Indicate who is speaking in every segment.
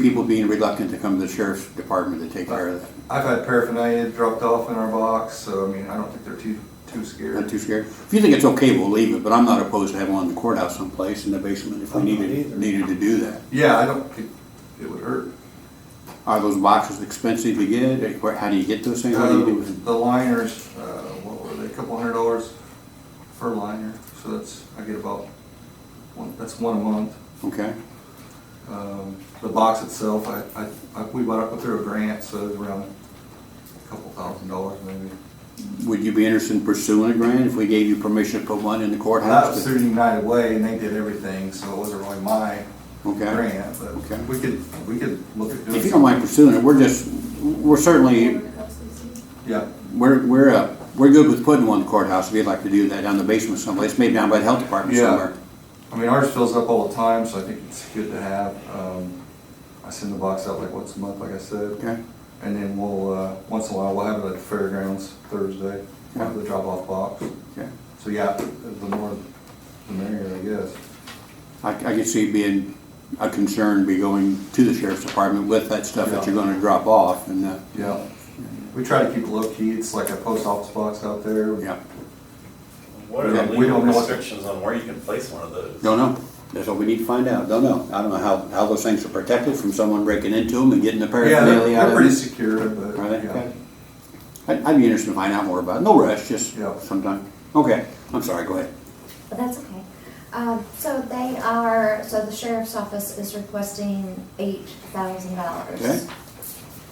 Speaker 1: people being reluctant to come to the sheriff's department to take care of that.
Speaker 2: I've had paraphernalia dropped off in our box, so I mean, I don't think they're too, too
Speaker 1: Not
Speaker 2: scared.
Speaker 1: too scared? If you think it's okay, we'll leave it, but I'm not opposed to having one in the courthouse someplace in the basement if we
Speaker 3: I'm not
Speaker 1: needed,
Speaker 3: either.
Speaker 1: needed to do that.
Speaker 2: Yeah, I don't think it would hurt.
Speaker 1: Are those boxes expensive to get? Where- How do you get those things? What do you do with them?
Speaker 2: Uh, The liners, uh, what were they, a couple hundred dollars per liner, so that's, I get about, one. that's one a month.
Speaker 1: Okay,
Speaker 2: Um, The box itself, I, I- I, we bought it through a grant, so it was around a couple thousand dollars maybe.
Speaker 1: would you be interested in pursuing a grant if we gave you permission to put one in the courthouse?
Speaker 2: That was through United Way, and they did everything, so it wasn't really my
Speaker 1: Okay.
Speaker 2: grant,
Speaker 1: Okay.
Speaker 2: but we could, we could look at doing.
Speaker 1: If you don't mind pursuing it, we're just, we're certainly,
Speaker 2: Yeah,
Speaker 1: we're, we're, uh, we're good with putting one in the courthouse if you'd like to do that down in the basement someplace, maybe down by the health department
Speaker 2: Yeah.
Speaker 1: somewhere.
Speaker 2: I mean, ours fills up all the time, so I think it's good to have. Um, I send the box out like once a month, like I said.
Speaker 1: Okay,
Speaker 2: And then we'll, uh, once in a while, we'll have it at the fairgrounds Thursday, we'll have the drop-off box.
Speaker 1: okay.
Speaker 2: So yeah, the more, the merrier, I guess.
Speaker 1: I, I could see it being a concern, be going to the sheriff's department with that stuff that you're gonna drop off and, uh,
Speaker 2: Yeah. We try to keep it low-key, it's like a post office box out there.
Speaker 1: yeah,
Speaker 4: What are
Speaker 2: Yeah,
Speaker 4: the
Speaker 2: we
Speaker 4: legal
Speaker 2: don't know what-
Speaker 4: restrictions on where you can place one of those?
Speaker 1: don't know. That's what we need to find out, don't know. I don't know how, how those things are protected from someone breaking into them and getting the
Speaker 2: Yeah, they're
Speaker 1: paraphernalia out
Speaker 2: they're
Speaker 1: of
Speaker 2: pretty
Speaker 1: them.
Speaker 2: secure, but
Speaker 1: Are they?
Speaker 2: yeah.
Speaker 1: I'd, I'd be interested to find out more about it. No rush, just
Speaker 2: Yeah.
Speaker 1: sometime. Okay, I'm sorry, go ahead.
Speaker 5: But that's okay. Um, so they are, so the sheriff's office is requesting eight thousand
Speaker 1: Okay.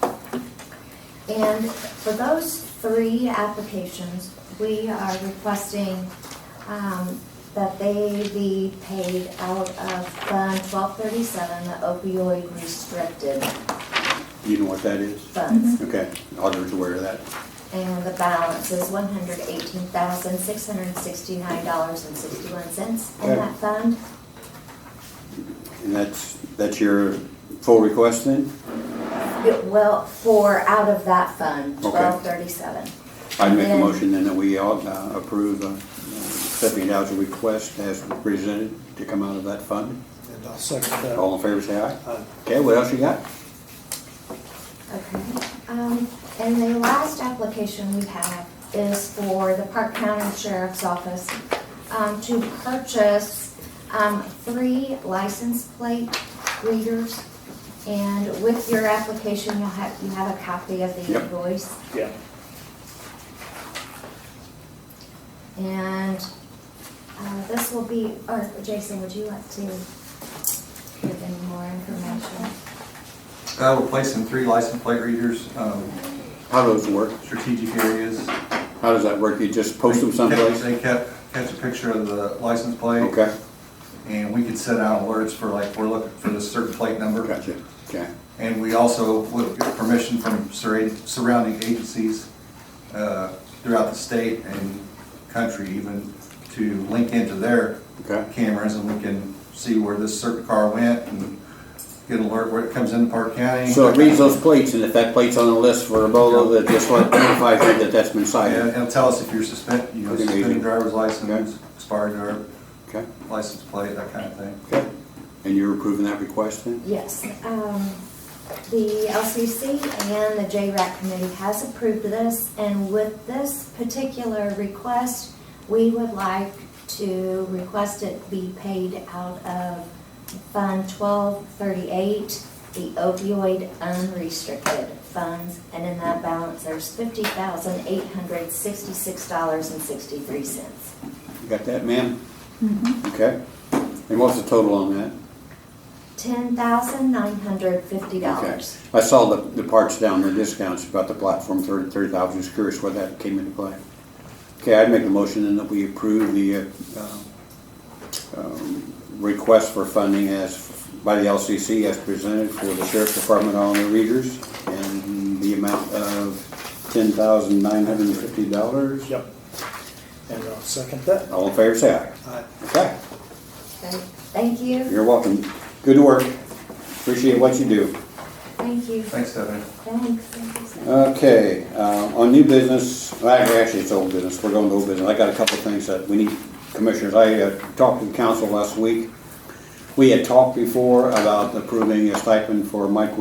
Speaker 5: dollars. And for those three applications, we are requesting, um, that they be paid out of Fund twelve thirty-seven, the opioid restricted
Speaker 1: You know what that is?
Speaker 5: funds.
Speaker 1: Okay, auditor's aware of that.
Speaker 5: And the balance is one hundred eighteen thousand, six hundred sixty-nine dollars and sixty-one cents in
Speaker 1: Okay.
Speaker 5: that fund.
Speaker 1: And that's, that's your full request then?
Speaker 5: Yeah, Well, for, out of that fund,
Speaker 1: Okay.
Speaker 5: twelve thirty-seven.
Speaker 1: I'd make a
Speaker 5: Then-
Speaker 1: motion then that we all uh, approve uh, accepting Dow's request as presented to come out of that fund.
Speaker 3: And I'll second that. Uh,
Speaker 1: All in favor, say aye.
Speaker 3: Aye.
Speaker 1: Okay, what else you got?
Speaker 5: Okay. Um, and the last application we have is for the Park County Sheriff's Office, um, to purchase, um, three license plate readers. And with your application, you'll have, you have a copy of the
Speaker 1: Yep.
Speaker 5: invoice.
Speaker 3: Yeah.
Speaker 5: And uh, this will be, or Jason, would you like to give any more information?
Speaker 2: Uh, we're placing three license plate readers, um,
Speaker 1: How does it work?
Speaker 2: strategic areas.
Speaker 1: How does that work? You just post them someplace?
Speaker 2: They kept, catch a picture of the license plate.
Speaker 1: Okay,
Speaker 2: And we could set out alerts for like, we're looking for this certain plate number.
Speaker 1: gotcha, okay.
Speaker 2: And we also would get permission from surra- surrounding agencies uh, throughout the state and country even to link into their
Speaker 1: Okay.
Speaker 2: cameras and we can see where this certain car went and get an alert where it comes into Park County.
Speaker 1: So it reads those plates, and if that plate's on the list for a bolo, that just like notifies you that that's been
Speaker 2: And
Speaker 1: cited.
Speaker 2: it'll tell us if you're suspended, you know,
Speaker 1: Pretty amazing.
Speaker 2: suspended driver's license, expired driver
Speaker 1: Okay,
Speaker 2: license plate, that kind of thing.
Speaker 1: okay. And you're approving that request then?
Speaker 5: Yes, um, the LCC and the JRAC committee has approved this, and with this particular request, we would like to request it be paid out of Fund twelve thirty-eight, the opioid unrestricted funds, and in that balance, there's fifty thousand eight hundred sixty-six dollars and sixty-three cents.
Speaker 1: You got that, ma'am? Okay. And what's the total on that?
Speaker 5: Ten thousand nine hundred fifty
Speaker 1: Okay.
Speaker 5: dollars.
Speaker 1: I saw the, the parts down, the discounts about the platform, thirty, thirty thousand, just curious where that came into play. Okay, I'd make a motion then that we approve the, uh, um, request for funding as, by the LCC as presented for the sheriff's department on the readers and the amount of ten thousand nine hundred and fifty dollars.
Speaker 3: Yep. And I'll second that. Uh,
Speaker 1: All in favor, say aye.
Speaker 3: Aye.
Speaker 1: Okay,
Speaker 5: Thank you.
Speaker 1: you're welcome. Good work. Appreciate what you do.
Speaker 5: Thank you.
Speaker 2: Thanks, Stephanie.
Speaker 5: Thanks. Thank you so much.
Speaker 1: Okay, uh, on new business, well, actually, it's old business, we're going to old business, I got a couple of things that we need, commissioners, I uh, talked to the council last week We had talked before about approving a stipend for Mike